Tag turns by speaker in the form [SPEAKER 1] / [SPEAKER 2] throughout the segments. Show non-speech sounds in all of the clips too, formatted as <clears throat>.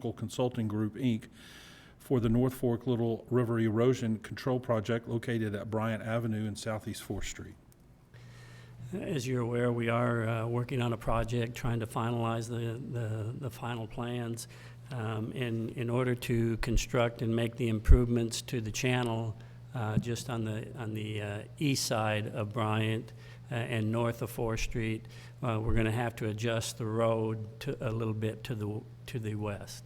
[SPEAKER 1] Technical Consulting Group, Inc., for the North Fork Little River Erosion Control Project located at Bryant Avenue and Southeast Fourth Street.
[SPEAKER 2] As you're aware, we are uh, working on a project, trying to finalize the, the, the final plans. Um, In, in order to construct and make the improvements to the channel, uh, just on the, on the uh, east side of Bryant uh, and north of Fourth Street, uh, we're going to have to adjust the road to, a little bit to the, to the west.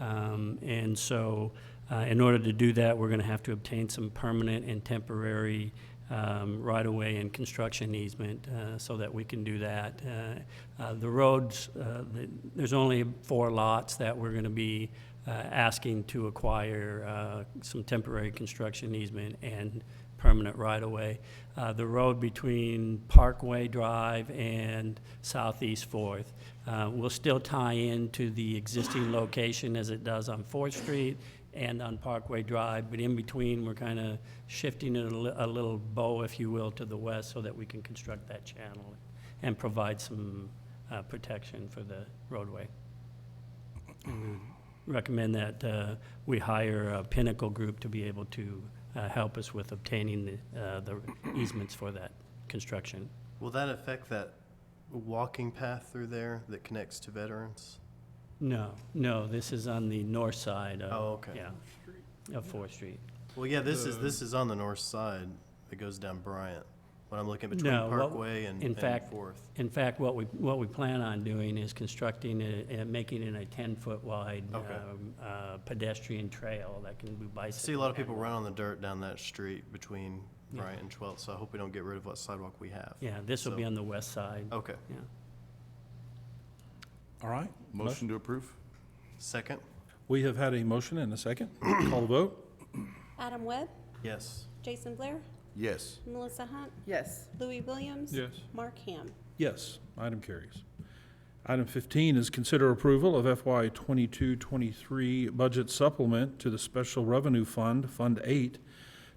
[SPEAKER 2] Um, And so, uh, in order to do that, we're going to have to obtain some permanent and temporary um, right-of-way and construction easement uh, so that we can do that. Uh, uh, The roads, uh, the- there's only four lots that we're going to be uh, asking to acquire uh, some temporary construction easement and permanent right-of-way. Uh, The road between Parkway Drive and Southeast Fourth uh, will still tie into the existing location as it does on Fourth Street and on Parkway Drive, but in between, we're kind of shifting it a li- a little bow, if you will, to the west so that we can construct that channel and provide some uh, protection for the roadway. And we Recommend that uh, we hire a Pinnacle Group to be able to uh, help us with obtaining the uh, the easements for that construction.
[SPEAKER 3] Will that affect that walking path through there that connects to veterans?
[SPEAKER 2] No, no, this is on the north side of.
[SPEAKER 3] Oh, okay.
[SPEAKER 2] Yeah, of Fourth Street.
[SPEAKER 3] Well, yeah, this is, this is on the north side that goes down Bryant, when I'm looking between
[SPEAKER 2] No, what-
[SPEAKER 3] Parkway and,
[SPEAKER 2] in
[SPEAKER 3] and
[SPEAKER 2] fact-
[SPEAKER 3] Fourth.
[SPEAKER 2] In fact, what we, what we plan on doing is constructing a- and making it a 10-foot wide
[SPEAKER 3] Okay.
[SPEAKER 2] um, uh, pedestrian trail that can be
[SPEAKER 3] I
[SPEAKER 2] bicycle.
[SPEAKER 3] see a lot of people
[SPEAKER 2] handled.
[SPEAKER 3] run on the dirt down that street between
[SPEAKER 2] Yeah.
[SPEAKER 3] Bryant and Twelfth, so I hope we don't get rid of what sidewalk we have.
[SPEAKER 2] Yeah, this will be
[SPEAKER 3] So- Oh.
[SPEAKER 2] on the west side.
[SPEAKER 3] Okay,
[SPEAKER 2] Yeah.
[SPEAKER 1] All right?
[SPEAKER 4] Motion to approve?
[SPEAKER 3] second?
[SPEAKER 1] We have had a motion and a second. Call the vote.
[SPEAKER 5] Adam Webb,
[SPEAKER 3] Yes.
[SPEAKER 5] Jason Blair,
[SPEAKER 4] Yes.
[SPEAKER 5] Melissa Hunt,
[SPEAKER 6] Yes,
[SPEAKER 5] Louis Williams.
[SPEAKER 1] Yes.
[SPEAKER 5] Mark Ham.
[SPEAKER 1] Yes, item carries. Item 15 is consider approval of FY 22-23 budget supplement to the Special Revenue Fund, Fund 8,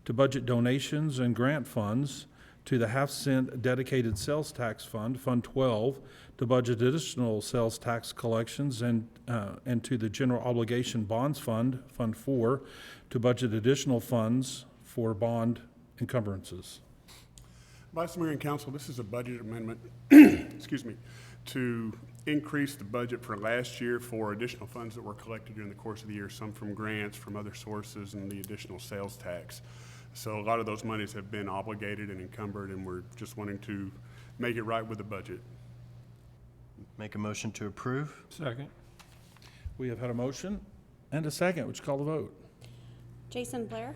[SPEAKER 1] to budget donations and grant funds, to the half-cent dedicated sales tax fund, Fund 12, to budget additional sales tax collections, and, uh, and to the general obligation bonds fund, Fund 4, to budget additional funds for bond encumbrances.
[SPEAKER 7] Vice Mayor and Council, this is a budget amendment, <clears throat> excuse me, to increase the budget for last year for additional funds that were collected during the course of the year, some from grants, from other sources, and the additional sales tax. So a lot of those monies have been obligated and encumbered, and we're just wanting to make it right with the budget.
[SPEAKER 3] Make a motion to approve?
[SPEAKER 1] We have had a motion and a second. Would you call the vote?
[SPEAKER 5] Jason Blair,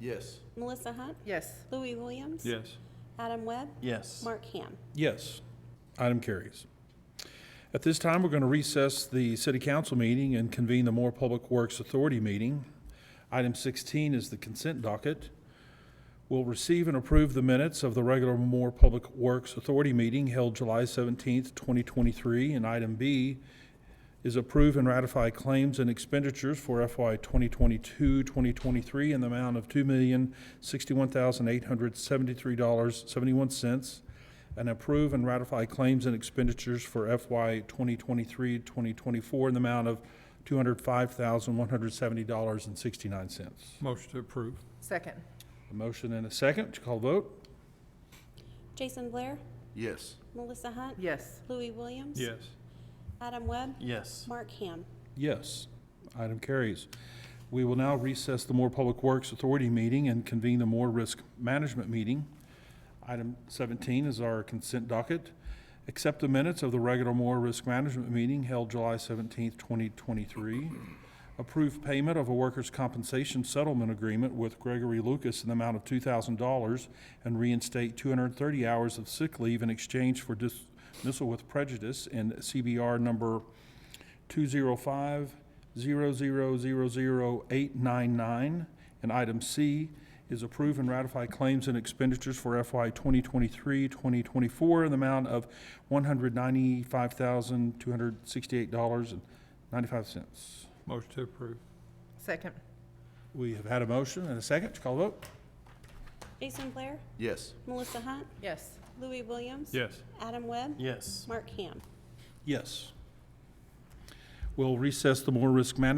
[SPEAKER 4] Yes.
[SPEAKER 5] Melissa Hunt,
[SPEAKER 6] yes,
[SPEAKER 5] Louis Williams. Yes. Adam Webb,
[SPEAKER 3] Yes.
[SPEAKER 5] Mark Ham.
[SPEAKER 1] Yes. Item carries. At this time, we're going to recess the city council meeting and convene the Moore Public Works Authority meeting. Item 16 is the consent docket. We'll receive and approve the minutes of the regular Moore Public Works Authority meeting held July 17th, 2023. And item B is approve and ratify claims and expenditures for FY 2022-2023 in the amount of $2,061,873.71 and approve and ratify claims and expenditures for FY 2023-2024 in the amount of $205,170.69.
[SPEAKER 8] Motion to approve.
[SPEAKER 6] second,
[SPEAKER 1] A motion and a second. Would you call the vote?
[SPEAKER 5] Jason Blair,
[SPEAKER 4] Yes.
[SPEAKER 5] Melissa Hunt.
[SPEAKER 6] yes,
[SPEAKER 5] Louis Williams. Adam Webb,
[SPEAKER 3] Yes.
[SPEAKER 5] Mark Ham.
[SPEAKER 1] Yes. Item carries. We will now recess the Moore Public Works Authority meeting and convene the Moore Risk Management meeting. Item 17 is our consent docket. Accept the minutes of the regular Moore Risk Management meeting held July 17, 2023. Approve payment of a workers' compensation settlement agreement with Gregory Lucas in the amount of $2,000 and reinstate 230 hours of sick leave in exchange for dismissal with prejudice in CBR number 205-0000899. And item C is approve and ratify claims and expenditures for FY 2023-2024 in the amount of $195,268.95.
[SPEAKER 8] Motion to approve.
[SPEAKER 6] second,
[SPEAKER 1] We have had a motion and a second. Would you Call the vote.
[SPEAKER 5] Jason Blair,
[SPEAKER 4] Yes.
[SPEAKER 5] Melissa Hunt,
[SPEAKER 6] yes,
[SPEAKER 5] Louis Williams.
[SPEAKER 8] Yes.
[SPEAKER 5] Adam Webb.
[SPEAKER 3] Yes.
[SPEAKER 5] Mark Ham.
[SPEAKER 1] Yes. We'll recess the more risk management